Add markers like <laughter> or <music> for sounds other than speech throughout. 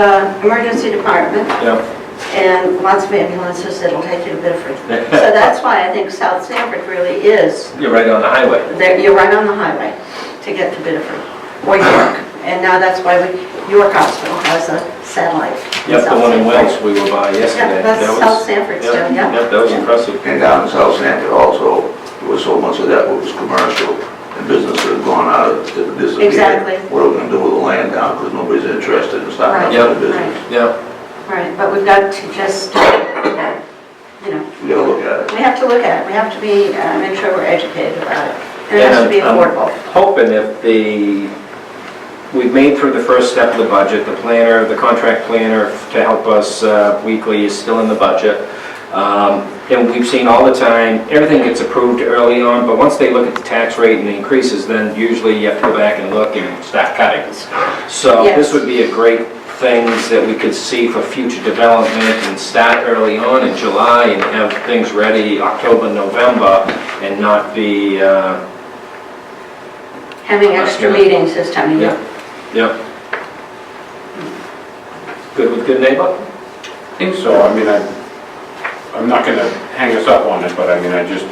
uh, emergency department Yeah, and lots of ambulances that'll take you to Bedford. <laughs> So that's why I think South Sanford really is, you're right on the highway. there- you're right on the highway to get to Bedford or York. And now that's why we- York Hospital has a satellite. Yep, the one South Sanford. in Wells we were by Yeah, yesterday. that's That was- South Sanford still, yeah. Yep, that was impressive. And down in South Sanford also, there was so much of that what was commercial and business that had gone out of, that disappeared. Exactly. What are we gonna do with the land now, because nobody's interested Uh, in starting Right, up Yep. a business? right, Yeah, right. But we've got to just, uh, you know, We gotta look at it. we have to look at it. We have to be, uh, make sure we're educated about it. And it has to be And um, I'm- affordable. hoping if the, we've made through the first step of the budget, the planner, the contract planner to help us uh, weekly is still in the budget. Um, And we've seen all the time, everything gets approved early on, but once they look at the tax rate and the increases, then usually you have to go back and look and start cutting. So Yes. this would be a great things that we could see for future development and start early on in July and have things ready October, November, and not be, uh, Having extra Yeah. meetings this time of year. Yeah, yeah. Good with good neighbor? think so, I mean, I, I'm not gonna hang us up on it, but I mean, I just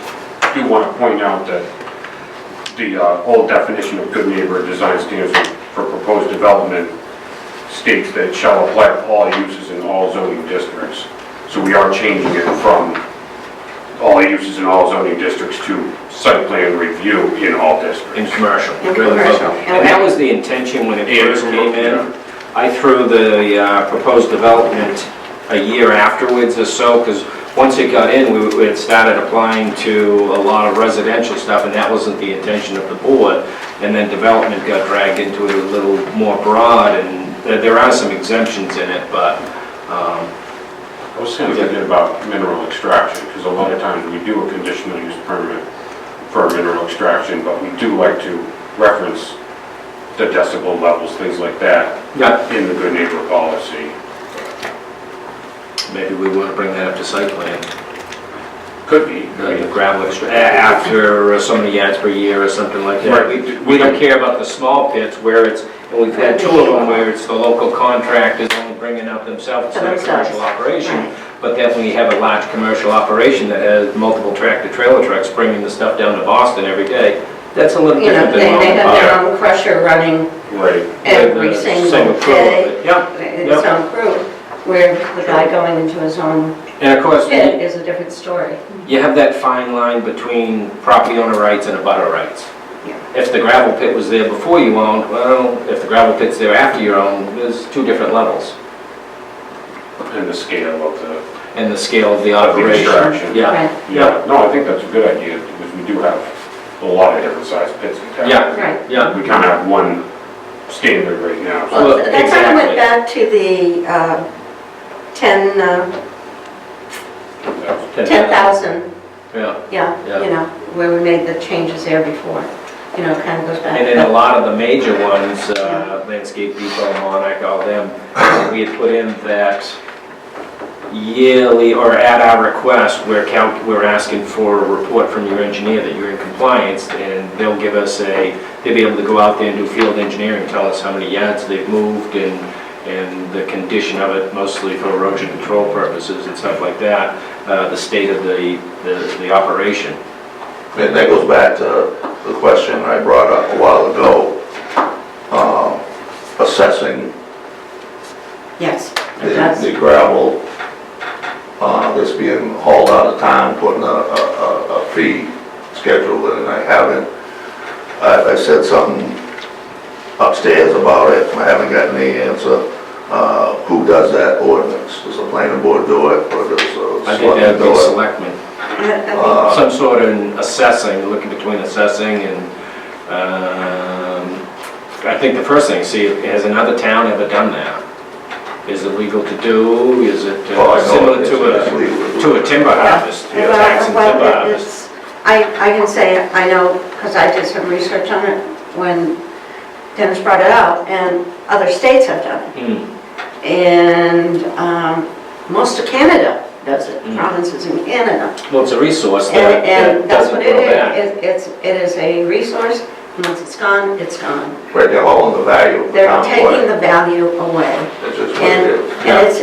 do wanna point out that the uh, old definition of good neighbor design standards for proposed development states that it shall apply to all uses in all zoning districts. So we are changing it from all uses in all zoning districts to site plan review in all districts. commercial. In commercial. And that was the intention when it Yeah. first came in. I threw the uh, proposed development a year afterwards or so, because once it got in, we we had started applying to a lot of residential stuff, and that wasn't the intention of the board. And then development got dragged into it a little more broad, and there- there are some exemptions in it, but, um, I was kind of thinking about mineral extraction, because a lot of times we do a conditional use permit for mineral extraction, but we do like to reference the decibel levels, things like that, yeah, in the good neighbor policy. Maybe we want to bring that up to site plan, Could be, I like the mean, gravel extra, a- after uh, so many yards per year or something like that. Right. We- We don't care about the small pits where it's, and we've had two of them where it's the local contractors only bringing up themselves, it's not a commercial Right. operation. But then when you have a large commercial operation that has multiple tractor trailer trucks bringing the stuff down to Boston every day, that's a little You know, different they, than. they have their local- own crusher running right, every With the single same crew of day. it. Yeah, It's on crew, where the guy going into his own and of course, pit is a different story. You have that fine line between property owner rights and abutter rights. Yeah. If the gravel pit was there before you owned, well, if the gravel pit's there after you own, there's two different levels in the scale of the, in the scale of the of the operation. extraction. Yeah, Right, Yeah, no, I think that's a good idea, because we do have a lot of different sized pits in town. Yeah. right. yeah, We kind of have one standard right now, so Well, Well, that kind of went exactly. back to the uh, 10, uh, that's- 10,000, Yeah, yeah, Yeah. you know, where we made the changes there before. You know, kind of goes back. and then a lot of the major ones, uh, Landscape Depot, Monarch, all them, we had put in that yearly, or at our request, we're count, we're asking for a report from your engineer that you're in compliance, and they'll give us a, they'll be able to go out there and do field engineering, tell us how many yards they've moved and, and the condition of it, mostly for erosion control purposes and stuff like that, uh, the state of the, the the operation. And that goes back to the question I brought up a while ago, um, assessing Yes, the it does. the gravel uh, that's being hauled out of town, putting a, a- a, a fee schedule in, and I haven't. I, I said something upstairs about it, I haven't gotten any answer. Uh, Who does that ordinance? Does the planning board do it, or does the I think selectmen that'd do be it? selectmen. I- I Uh, some sort of assessing, looking between assessing and, um, I think the first thing, see, has another town ever done that? Is it legal to do? Is it well, I uh, similar know it's- to it's a, legal to a timber Yeah. harvest, you know, Well, tax and well, timber it- harvest? it's- I, I can say, I know, because I did some research on it when Dennis brought it out, and other states have done Hmm, it. And um, most of Canada does it, Mm. provinces in Canada. hmm, Well, it's a resource And, that and that that's what doesn't it go back. is, It- it's, it is a resource Once it's gone, it's gone. Right, they're all in the value of the They're town taking plan. the value away. It's just what it And, is. and it's,